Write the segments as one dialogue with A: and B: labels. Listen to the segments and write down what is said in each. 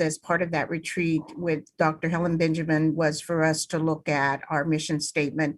A: as part of that retreat with Dr. Helen Benjamin was for us to look at our mission statement.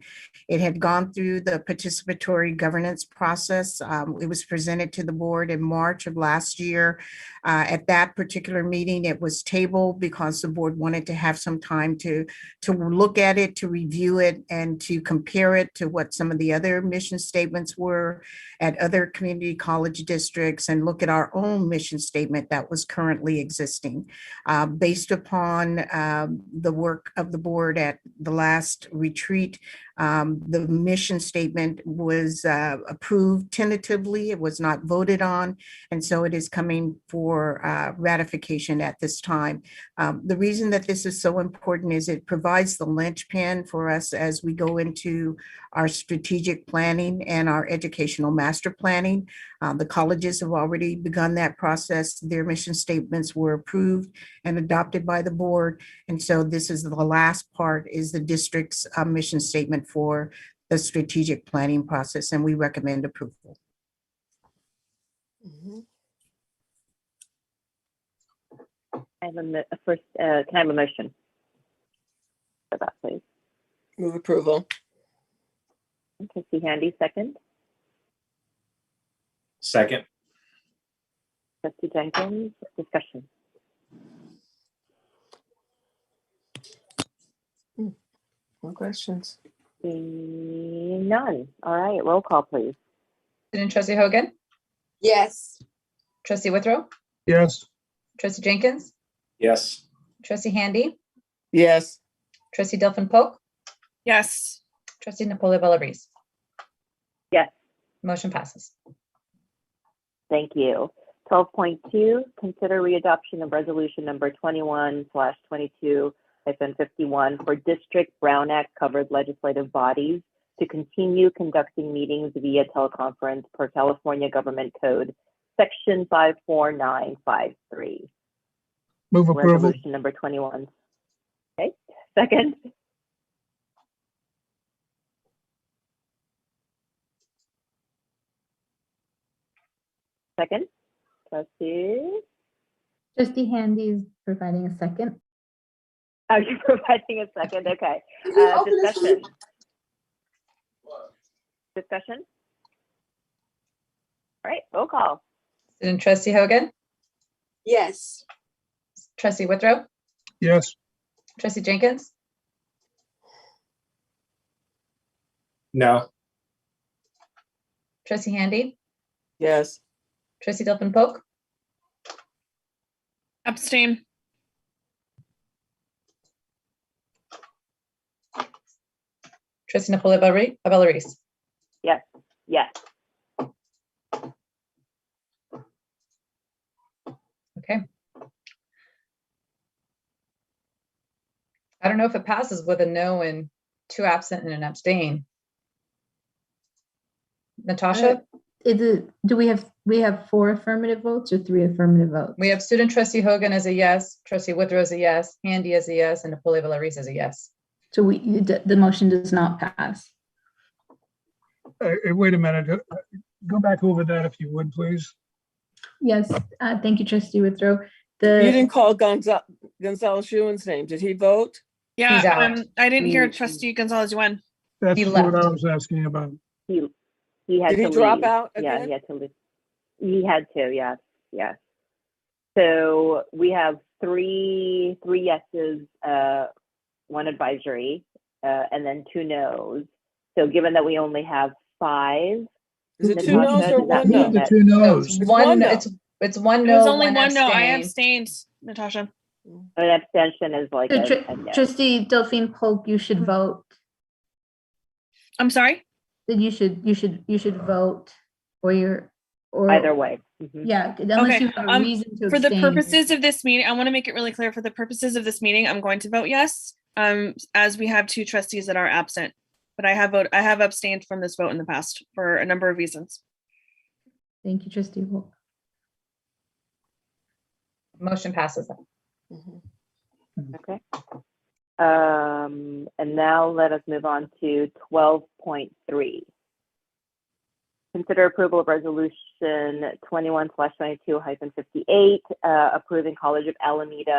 A: It had gone through the participatory governance process. Um, It was presented to the board in March of last year. Uh, At that particular meeting, it was tabled because the board wanted to have some time to, to look at it, to review it, and to compare it to what some of the other mission statements were at other community college districts and look at our own mission statement that was currently existing. Uh, Based upon um, the work of the board at the last retreat, um, the mission statement was uh, approved tentatively. It was not voted on. And so it is coming for uh, ratification at this time. Um, The reason that this is so important is it provides the linchpin for us as we go into our strategic planning and our educational master planning. Uh, The colleges have already begun that process. Their mission statements were approved and adopted by the board. And so this is the last part is the district's uh, mission statement for the strategic planning process, and we recommend approval.
B: Mhm.
C: I have a mo- a first, uh, can I have a motion? For that, please.
B: Move approval.
C: Trustee Handy, second.
D: Second,
C: Trustee Jenkins, discussion.
B: No questions.
C: Seeing None. All right, roll call, please.
E: President Trustee Hogan,
B: Yes.
E: Trustee Withrow,
F: yes,
E: Trustee Jenkins,
D: yes,
E: Trustee Handy,
B: Yes.
E: Trustee Delphine Polk,
G: yes,
E: Trustee Napoli Bellarice.
C: Yes.
E: Motion passes.
C: Thank you. Twelve point two, consider readoption of resolution number twenty-one slash twenty-two hyphen fifty-one for district Brown Act covered legislative bodies to continue conducting meetings via teleconference per California Government Code, section five four nine five three.
F: move approval,
C: Resolution number twenty-one. Okay, second, second, trustee,
H: Trustee Handy is providing a second.
C: are you Oh, providing a second? Okay. Uh, Discussion. Discussion? All right, roll call.
E: President Trustee Hogan,
B: Yes.
E: Trustee Withrow,
F: yes,
E: Trustee Jenkins,
D: no,
E: Trustee Handy,
B: Yes.
E: Trustee Delphine Polk,
G: abstain,
E: Trustee Napoli Bellari- Bellarice.
C: Yes,
E: Okay. I don't know if it passes with a no and two absent and an abstain.
G: Uh,
E: Natasha,
H: Is Uh, it, do we have, we have four affirmative votes or three affirmative votes?
E: we have student trustee Hogan as a yes, trustee Withrow as a yes, Handy as a yes, and Napoli Bellarice as a yes.
H: So we, you d- the motion does not pass.
F: Uh, uh, wait a minute, Uh, go back over that if you would, please.
H: Yes, uh, thank you, trustee Withrow.
F: Uh,
B: You
H: The,
B: didn't call Gonzalez, Gonzalez Schuman's name. Did he vote?
G: yeah,
E: He's out.
G: um, I didn't hear
B: Mm.
G: trustee Gonzalez Yuen.
F: That's
E: He
F: what I
E: left.
F: was asking about.
C: he, he had to
B: Did he
C: leave.
B: drop out
C: Yeah, he
B: again?
C: had to leave. He had to, yes, yes. So we have three, three yeses, uh, one advisory, uh, and then two nos. So given that we only have five,
B: Is it
C: Did
B: two
C: Natasha,
B: no's or
C: did that
B: one
F: Who
C: mean
B: no?
F: of the
C: that-
F: two
E: So
F: knows?
G: Oh,
E: it's
B: It's one
E: one,
B: no.
E: it's, it's one
G: It was
E: no,
G: only
E: one
G: one no, I
E: abstain.
G: abstained, Natasha.
C: an abstention is like
H: the
C: a,
H: tr-
C: a no.
H: trustee Delphine Polk, you should vote,
G: I'm sorry?
H: then you should, you should, you should vote for your, or.
C: Either way. Mhm.
H: Yeah, unless
G: Okay,
H: you have a
G: um,
H: reason to
G: For the
H: abstain.
G: purposes of this meeting, I want to make it really clear, for the purposes of this meeting, I'm going to vote yes. Um, as we have two trustees that are absent, but I have vote, I have abstained from this vote in the past for a number of reasons.
H: Thank you, trustee Polk.
E: Motion passes.
B: Mhm.
C: Okay. Um, and now let us move on to twelve point three. Consider approval of resolution twenty-one twenty-two hyphen fifty-eight, uh, approving College of Alameda